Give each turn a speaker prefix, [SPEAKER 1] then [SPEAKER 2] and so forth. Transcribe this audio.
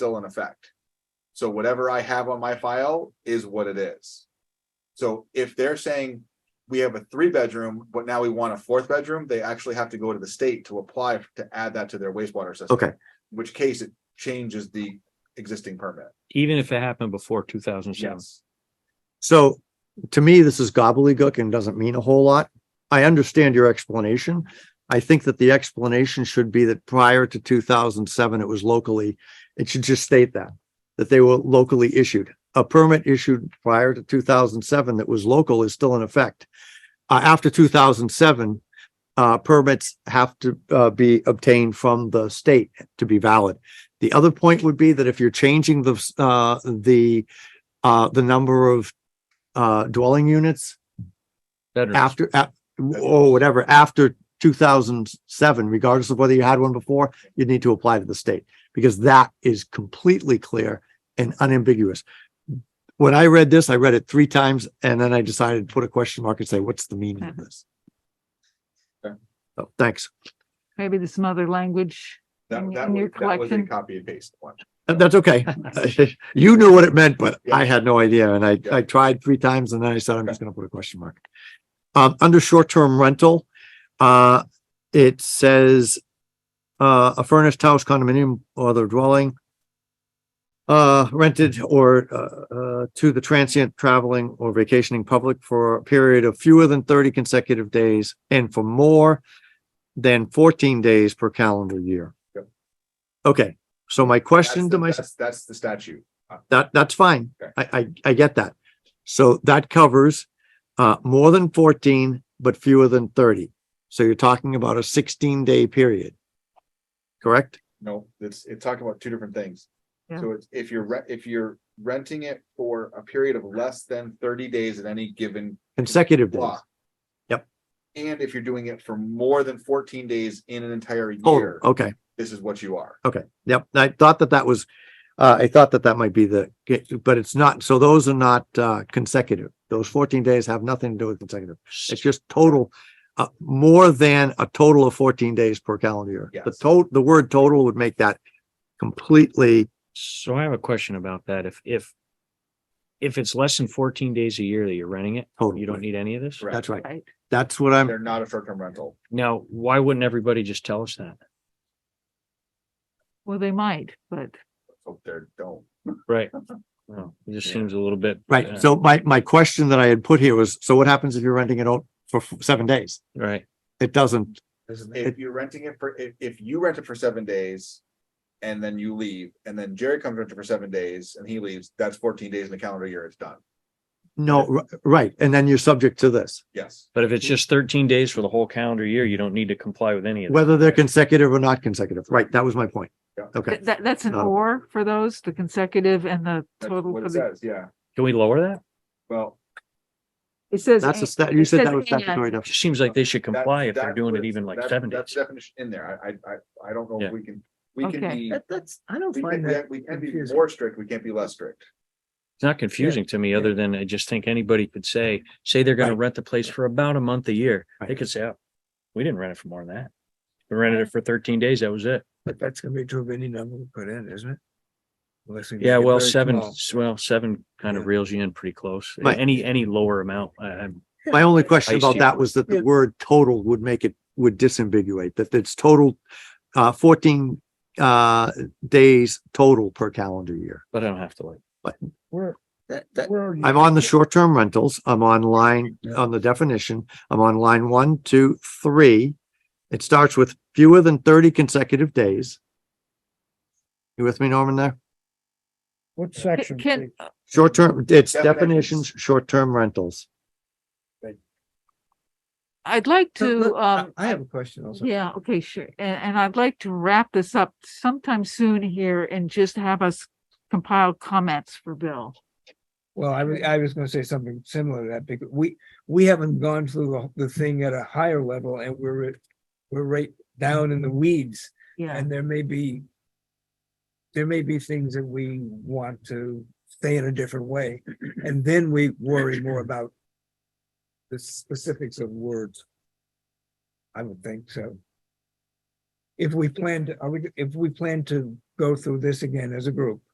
[SPEAKER 1] still in effect. So whatever I have on my file is what it is. So if they're saying we have a three bedroom, but now we want a fourth bedroom, they actually have to go to the state to apply to add that to their wastewater system.
[SPEAKER 2] Okay.
[SPEAKER 1] In Which case it changes the existing permit.
[SPEAKER 3] even if it happened before two thousand seven.
[SPEAKER 1] Yes.
[SPEAKER 2] So to me, this is gobbledygook and doesn't mean a whole lot. I understand your explanation. I think that the explanation should be that prior to two thousand seven, it was locally, it should just state that, that they were locally issued. A permit issued prior to two thousand seven that was local is still in effect. Uh, after two thousand seven, uh, permits have to, uh, be obtained from the state to be valid. The other point would be that if you're changing the, uh, the, uh, the number of uh, dwelling units
[SPEAKER 3] Veterans,
[SPEAKER 2] after, at, or whatever, after two thousand seven, regardless of whether you had one before, you'd need to apply to the state, because that is completely clear and unambiguous. When I read this, I read it three times, and then I decided to put a question mark and say, what's the meaning of this?
[SPEAKER 1] Okay.
[SPEAKER 2] Oh, thanks.
[SPEAKER 4] Maybe there's some other language.
[SPEAKER 1] That,
[SPEAKER 4] In-
[SPEAKER 1] that
[SPEAKER 4] in your
[SPEAKER 1] was, that was a
[SPEAKER 4] collection.
[SPEAKER 1] copy and paste one.
[SPEAKER 2] Uh, That's okay. You knew what it meant, but
[SPEAKER 1] Yeah.
[SPEAKER 2] I had no idea. And I,
[SPEAKER 1] Yeah.
[SPEAKER 2] I tried three times and then I said, I'm just gonna put a question mark. Um, under short-term rental, uh, it says, uh, a furnished house condominium or other dwelling uh, rented or, uh, uh, to the transient traveling or vacationing public for a period of fewer than thirty consecutive days and for more than fourteen days per calendar year.
[SPEAKER 1] Yep.
[SPEAKER 2] Okay, so my question
[SPEAKER 1] That's the-
[SPEAKER 2] to myself.
[SPEAKER 1] that's- That's the statute.
[SPEAKER 2] That, that's fine.
[SPEAKER 1] Okay.
[SPEAKER 2] I, I, I get that. So that covers, uh, more than fourteen, but fewer than thirty. So you're talking about a sixteen day period. Correct?
[SPEAKER 1] No, it's, it's talking about two different things.
[SPEAKER 4] Yeah.
[SPEAKER 1] So it's, if you're, re- if you're renting it for a period of less than thirty days at any given
[SPEAKER 2] Consecutive days.
[SPEAKER 1] block.
[SPEAKER 2] Yep.
[SPEAKER 1] And if you're doing it for more than fourteen days in an entire
[SPEAKER 2] Oh,
[SPEAKER 1] year,
[SPEAKER 2] okay,
[SPEAKER 1] this is what you are.
[SPEAKER 2] okay. Yep. I thought that that was, uh, I thought that that might be the, but it's not. So those are not, uh, consecutive. Those fourteen days have nothing to do with consecutive. It's just total, uh, more than a total of fourteen days per calendar year. The
[SPEAKER 1] Yes.
[SPEAKER 2] total, the word total would make that completely
[SPEAKER 3] so I have a question about that. If, if. If it's less than fourteen days a year that you're renting it,
[SPEAKER 2] total.
[SPEAKER 3] you don't need any of this?
[SPEAKER 1] Correct.
[SPEAKER 2] That's right.
[SPEAKER 4] Right.
[SPEAKER 2] That's what I'm,
[SPEAKER 1] They're not a short-term rental.
[SPEAKER 3] Now, why wouldn't everybody just tell us that?
[SPEAKER 4] Well, they might, but
[SPEAKER 1] So they're, don't.
[SPEAKER 3] Right. Well, It just
[SPEAKER 1] Yeah.
[SPEAKER 3] seems a little bit. uh,
[SPEAKER 2] right. So my, my question that I had put here was, so what happens if you're renting it out for f- seven days?
[SPEAKER 3] Right,
[SPEAKER 2] It doesn't,
[SPEAKER 1] If you're renting it for, if, if you rent it for seven days and then you leave, and then Jerry comes rent it for seven days and he leaves, that's fourteen days in the calendar year, it's done.
[SPEAKER 2] no, r- right. And then you're subject to this,
[SPEAKER 1] Yes.
[SPEAKER 3] but if it's just thirteen days for the whole calendar year, you don't need to comply with any of that.
[SPEAKER 2] whether they're consecutive or not consecutive. Right. That was my point.
[SPEAKER 1] Yeah.
[SPEAKER 2] Okay.
[SPEAKER 4] th- that, that's an
[SPEAKER 2] Not a-
[SPEAKER 4] or for those, the consecutive and the
[SPEAKER 1] That's
[SPEAKER 4] total.
[SPEAKER 1] what
[SPEAKER 4] for
[SPEAKER 1] it
[SPEAKER 4] the-
[SPEAKER 1] says, yeah.
[SPEAKER 3] Can we lower that?
[SPEAKER 1] Well,
[SPEAKER 4] It says.
[SPEAKER 2] That's a
[SPEAKER 4] and-
[SPEAKER 2] stat, you
[SPEAKER 4] it
[SPEAKER 2] said
[SPEAKER 4] says
[SPEAKER 2] that was
[SPEAKER 4] and.
[SPEAKER 2] statutory
[SPEAKER 3] It
[SPEAKER 2] definition.
[SPEAKER 3] just seems like they should
[SPEAKER 1] that-
[SPEAKER 3] comply if they're
[SPEAKER 1] that
[SPEAKER 3] doing it
[SPEAKER 1] was-
[SPEAKER 3] even like
[SPEAKER 1] that-
[SPEAKER 3] seven
[SPEAKER 1] That's
[SPEAKER 3] days.
[SPEAKER 1] definition in there. I, I, I, I don't know
[SPEAKER 3] Yeah.
[SPEAKER 1] if we can, we can
[SPEAKER 4] Okay.
[SPEAKER 1] be,
[SPEAKER 5] That, that's, I don't
[SPEAKER 1] we can,
[SPEAKER 5] find
[SPEAKER 1] we
[SPEAKER 5] that.
[SPEAKER 1] have- we can be
[SPEAKER 5] confusing.
[SPEAKER 1] more strict, we can't be less strict.
[SPEAKER 3] It's not confusing to me, other than I just think anybody could say, say they're gonna
[SPEAKER 2] Right.
[SPEAKER 3] rent the place for about a month a year. They
[SPEAKER 2] Right.
[SPEAKER 3] could say, oh, we didn't rent it for more than that. We rented it for thirteen days. That was it.
[SPEAKER 5] But that's gonna be true of any number we put in, isn't it? Unless we make
[SPEAKER 3] Yeah,
[SPEAKER 5] it
[SPEAKER 3] well,
[SPEAKER 5] very
[SPEAKER 3] seven,
[SPEAKER 5] small.
[SPEAKER 3] well, seven kind of
[SPEAKER 5] Yeah.
[SPEAKER 3] reels you in pretty close.
[SPEAKER 2] Right.
[SPEAKER 3] Any, any lower amount, I, I'm,
[SPEAKER 2] My only question
[SPEAKER 3] Ice
[SPEAKER 2] about
[SPEAKER 3] tea.
[SPEAKER 2] that was that the
[SPEAKER 5] Yeah.
[SPEAKER 2] word total would make it, would disambiguate that it's total, uh, fourteen, uh, days total per calendar year.
[SPEAKER 3] but I don't have to like.
[SPEAKER 5] Where, that, that.
[SPEAKER 2] I'm on the short-term rentals. I'm on line, on the definition. I'm on line one, two, three. It starts with fewer than thirty consecutive days. You with me, Norman, there?
[SPEAKER 5] What
[SPEAKER 4] Can- Can,
[SPEAKER 2] Short-term, it's
[SPEAKER 1] Definitions.
[SPEAKER 2] definitions, shorter-term rentals.
[SPEAKER 4] I'd like to, um,
[SPEAKER 5] I have a question also.
[SPEAKER 4] yeah, okay, sure. And, and I'd like to wrap this up sometime soon here and just have us compile comments for Bill.
[SPEAKER 5] Well, I was, I was gonna say something similar to that because we, we haven't gone through the, the thing at a higher level and we're, at- we're right down in the weeds
[SPEAKER 4] Yeah,
[SPEAKER 5] and there may be there may be things that we want to stay in a different way, and then we worry more about the specifics of words. I would think so. If we plan to, are we, if we plan to go through this again as a group.